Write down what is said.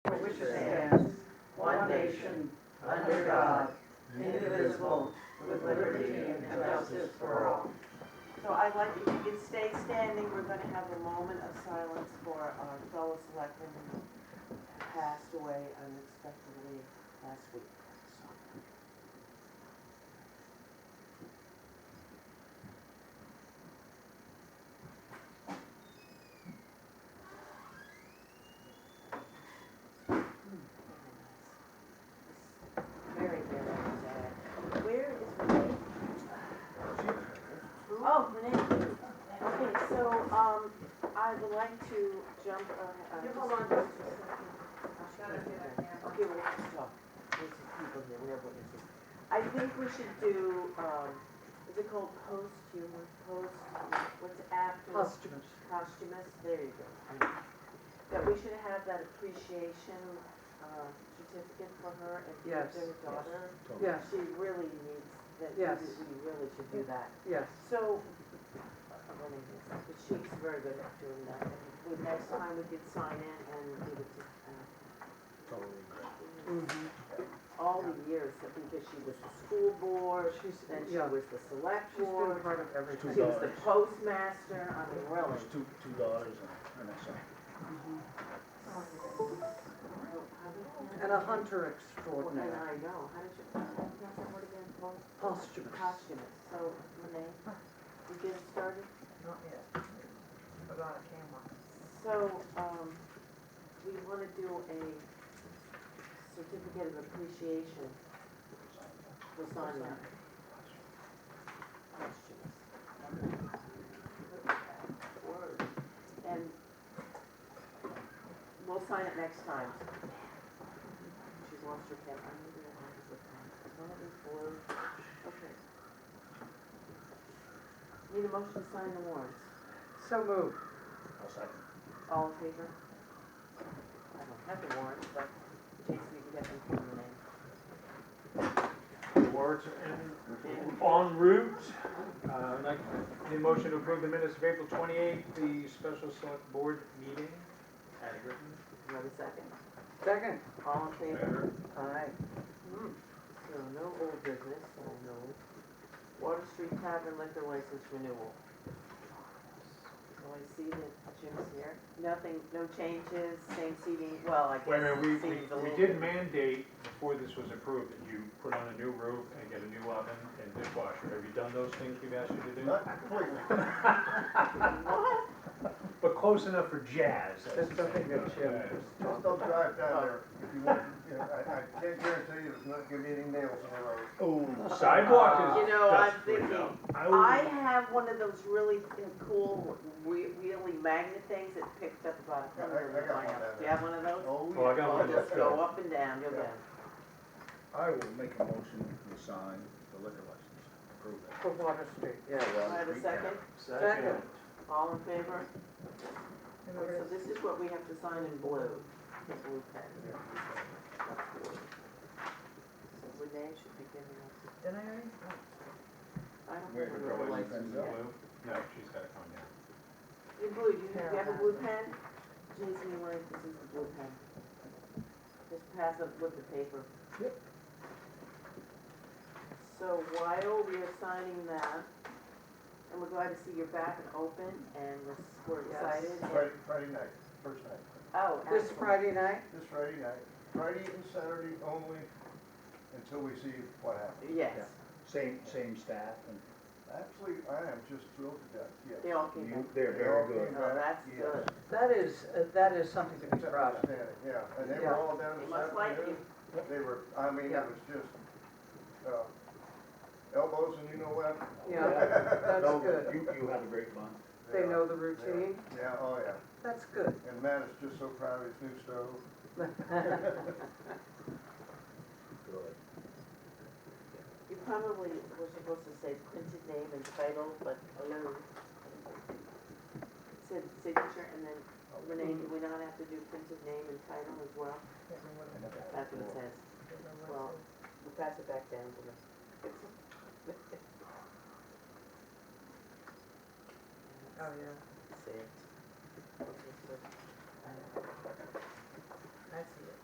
nation, under God, indivisible, with liberty and justice for all. So I'd like, if you could stay standing, we're gonna have a moment of silence for our fellow selectmen who passed away unexpectedly last week. Hmm. Very, very sad. Where is Renee? Oh, Renee. Okay, so, um, I would like to jump, uh, uh. You hold on just a second. I've got to get a hammer. Okay, we'll have to talk. There's some people here, we have witnesses. I think we should do, um, is it called posthumous, post, what's after? Posthumous. Posthumous, there you go. That we should have that appreciation, uh, certificate for her and give Yes. their daughter. Yes, She really needs, that, we Yes. we really should do that. yes. So, I'm gonna do this, but she's very good at doing that. And The next time we could sign in and give it to, uh, Mhm. all the years, that- because she was the school board, She's, then she yeah, was the select she's been board, part of she everything. was the postmaster, I mean, really. There's two, two dollars and, and something. And a hunter And extraordinary, I know, how did you, pronounce that word again, Post- posthumous. posthumous, so, Renee, you get it started? Not yet. Put on a camera. So, um, we wanna do a certificate of appreciation for Sonia. Questions? Word. And we'll sign it next time. She's lost her pen, I'm gonna do it on this pen. It's one of these blue, okay. Need a motion to sign the warrants. So moved. I'll second. All in favor? I don't have the warrants, but Jason, you can get them from the name. The warrants are Mm-hmm. in, en route. Uh, I'd like the motion to approve the minutes of April 28th, the special select board meeting. As written. You have a second? Second. All in favor? Hmm. Aye. So no old business, so no. Water Street Tavern liquor license renewal. So I see that Jim's here. Nothing, no changes, same seating, well, I guess. Wait a minute, we, seating's a we, we little bit- did mandate before this was approved that you put on a new roof and get a new oven and dishwasher. Have you done those things we've asked you to do? Not completely. What? But close enough for jazz. There's nothing that Jim Just don't drive down there if you want, you know, I, I can't guarantee you it's not gonna be any nails in the road. Oh, sidewalk is. You know, I'm dust right thinking, now. I I, have one of those really cool, whe- wheelie magnet things that picked up about a Yeah, I- I hundred. miles. Do got one down you have one of those? Oh, Well, I got Well, one just go that's up and down, you'll Yeah. down. I will make a motion to sign the liquor license. Approve that. for Water Street, yes. Do I have a second? Second. All in favor? And we're So gonna- this is what we have to sign in blue, the blue pen. So Renee should be giving us, Didn't I already? I don't Wait, think we're we're going like, to- yeah. No, she's gotta come down. In blue, do you have, you have a blue pen? Jason, you want, this is the blue pen. Just pass it with the paper. Yep. So while we are signing that, and we're glad to see you're back and open, and we're- we're Yes. excited. and- Friday, Friday night, first night, Oh, This excellent. Friday night? this Friday night, Friday and Saturday only, until we see what happens. Yes, Same, same staff and Actually, I am just thrilled to death, yes. they all came back. you, they're very good. Oh, that's Yeah. good. That is, uh, that is something to be It's proud of. outstanding, yeah, and they Yeah. were all down They this must like afternoon. you. They were, I mean, it Yeah. was just, uh, elbows and you know what? Yeah, No, that's good. You, you had a great month. They Yeah, know the routine. Yeah, oh yeah, That's good. and Matt is just so proud of his new stove. Good. You probably were supposed to say printed name and title, but hello. Said signature and then Renee, do we not have to do printed name and title as well? Can't remember what it was. That's what it says. Can't remember what it Well, was. we'll pass it back down to them. Oh, yeah, Saved. Okay, so, I see it.